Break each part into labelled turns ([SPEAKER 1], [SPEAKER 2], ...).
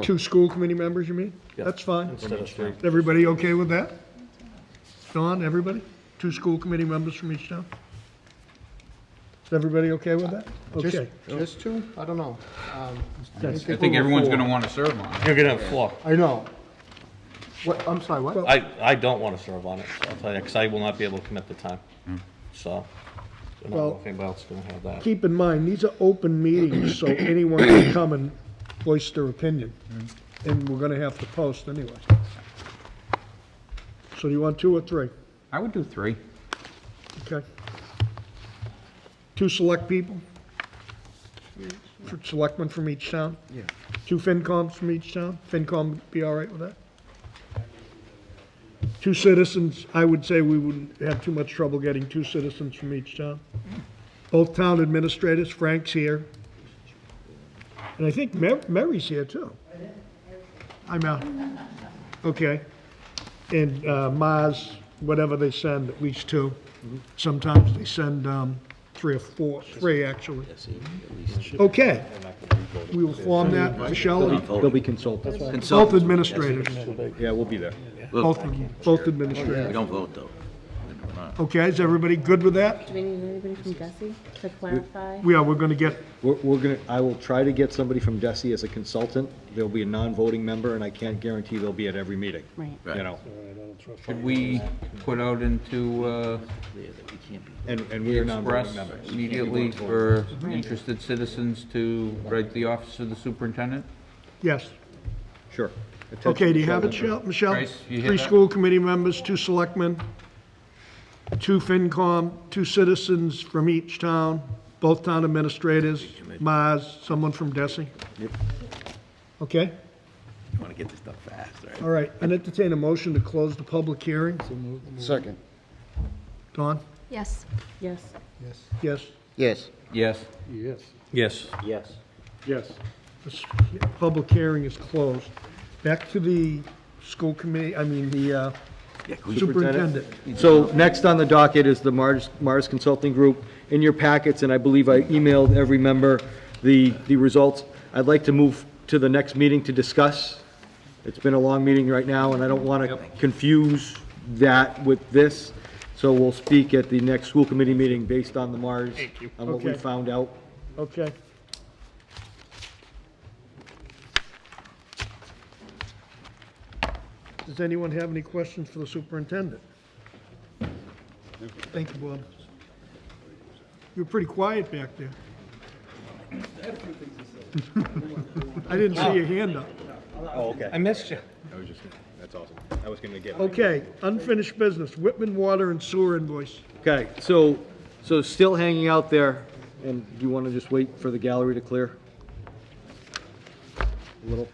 [SPEAKER 1] Two school committee members, you mean? That's fine.
[SPEAKER 2] Instead of three.
[SPEAKER 1] Everybody okay with that? Don, everybody? Two school committee members from each town? Is everybody okay with that? Okay.
[SPEAKER 3] Just two? I don't know. Um,
[SPEAKER 4] I think everyone's gonna wanna serve on it.
[SPEAKER 2] You're gonna have four.
[SPEAKER 3] I know. What, I'm sorry, what?
[SPEAKER 2] I, I don't wanna serve on it, I'll tell you, because I will not be able to commit the time, so. I don't
[SPEAKER 1] Well-
[SPEAKER 2] know if anybody else is gonna have that.
[SPEAKER 1] Keep in mind, these are open meetings, so anyone can come and voice their opinion. And we're gonna have to post anyway. So do you want two or three?
[SPEAKER 4] I would do three.
[SPEAKER 1] Okay. Two select people? For Selectmen from each town? Yeah. Two FinComs from each town? FinCom be all right with that? Two citizens, I would say we wouldn't have too much trouble getting two citizens from each town. Both town administrators, Frank's here. And I think Ma- Mary's here too. I'm out. Okay. And uh, Mars, whatever they send, at least two.
[SPEAKER 5] Mm-hmm.
[SPEAKER 1] Sometimes they send um, three or four, three actually. Okay. We will form that, Michelle,
[SPEAKER 5] They'll be consulted.
[SPEAKER 1] both administrators,
[SPEAKER 5] Yeah, we'll be there.
[SPEAKER 1] both, both
[SPEAKER 5] We
[SPEAKER 1] administrators.
[SPEAKER 5] don't vote, though.
[SPEAKER 1] Okay, is everybody good with that?
[SPEAKER 6] Do we need anybody from Gussie to clarify?
[SPEAKER 1] We are, we're gonna get,
[SPEAKER 5] We're, we're gonna, I will try to get somebody from DESI as a consultant. They'll be a non-voting member, and I can't guarantee they'll be at every meeting.
[SPEAKER 6] Right.
[SPEAKER 5] You know,
[SPEAKER 4] Should we put out into, uh,
[SPEAKER 5] and, and we are non-voting
[SPEAKER 4] Express
[SPEAKER 5] members.
[SPEAKER 4] immediately for interested citizens to write the office of the superintendent?
[SPEAKER 1] yes.
[SPEAKER 5] Sure. Attention,
[SPEAKER 1] Okay, do you have it,
[SPEAKER 5] Michelle?
[SPEAKER 1] Shel- Michelle?
[SPEAKER 4] Grace, you hear
[SPEAKER 1] Three
[SPEAKER 4] that?
[SPEAKER 1] school committee members, two selectmen, two FinCom, two citizens from each town, both town administrators, Mars, someone from DESI. Okay?
[SPEAKER 7] Want to get this done fast, right?
[SPEAKER 1] All right, I entertain a motion to close the public hearing.
[SPEAKER 3] Second.
[SPEAKER 1] Don?
[SPEAKER 8] Yes.
[SPEAKER 6] Yes.
[SPEAKER 1] Yes.
[SPEAKER 7] Yes.
[SPEAKER 4] Yes.
[SPEAKER 3] Yes.
[SPEAKER 2] Yes.
[SPEAKER 7] Yes.
[SPEAKER 3] Yes.
[SPEAKER 1] This public hearing is closed. Back to the school committee, I mean, the uh, superintendent.
[SPEAKER 5] So next on the docket is the Mars, Mars Consulting Group. In your packets, and I believe I emailed every member the, the results, I'd like to move to the next meeting to discuss. It's been a long meeting right now, and I don't want to confuse that with this. So we'll speak at the next school committee meeting based on the Mars, on what we
[SPEAKER 1] Okay.
[SPEAKER 5] found out.
[SPEAKER 1] Okay. Does anyone have any questions for the superintendent? Thank you, Bob. You were pretty quiet back there. I didn't see your hand up.
[SPEAKER 5] Oh,
[SPEAKER 2] I missed you.
[SPEAKER 5] That's awesome. I was going to get.
[SPEAKER 1] Okay, unfinished business, Whitman Water and Sewer invoice.
[SPEAKER 5] Okay, so, so still hanging out there, and you want to just wait for the gallery to clear? A little,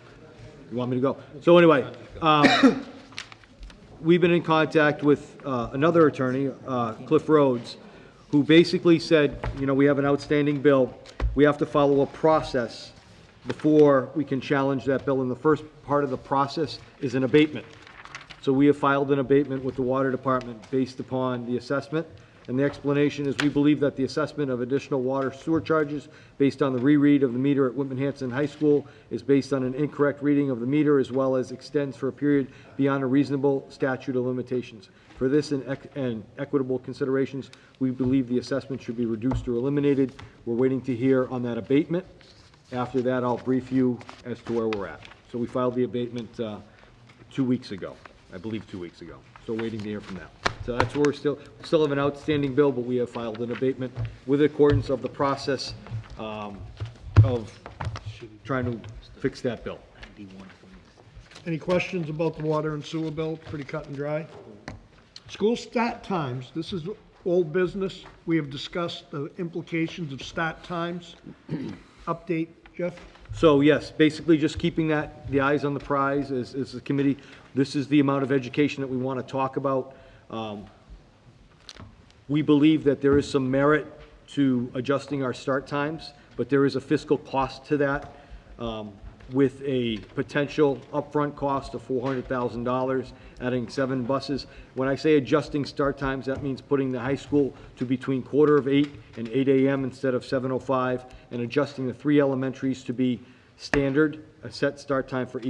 [SPEAKER 5] you want me to go? So anyway, um, we've been in contact with uh, another attorney, uh, Cliff Rhodes, who basically said, you know, we have an outstanding bill, we have to follow a process before we can challenge that bill, and the first part of the process is an abatement. So we have filed an abatement with the water department based upon the assessment. And the explanation is we believe that the assessment of additional water sewer charges based on the reread of the meter at Whitman Hanson High School is based on an incorrect reading of the meter as well as extends for a period beyond a reasonable statute of limitations. For this and ec- and equitable considerations, we believe the assessment should be reduced or eliminated. We're waiting to hear on that abatement. After that, I'll brief you as to where we're at. So we filed the abatement uh, two weeks ago, I believe two weeks ago. So waiting to hear from them. So that's where we're still, still have an outstanding bill, but we have filed an abatement with accordance of the process um, of trying to fix that bill.
[SPEAKER 1] Any questions about the water and sewer bill? Pretty cut and dry. School start times, this is old business. We have discussed the implications of start times. Update, Jeff?
[SPEAKER 5] So yes, basically just keeping that, the eyes on the prize as, as the committee. This is the amount of education that we want to talk about. Um, We believe that there is some merit to adjusting our start times, but there is a fiscal cost to that um, with a potential upfront cost of $400,000, adding seven buses. When I say adjusting start times, that means putting the high school to between quarter of eight oh and eight AM instead of 7:05, and adjusting the three elementaries to be standard a set start time for each.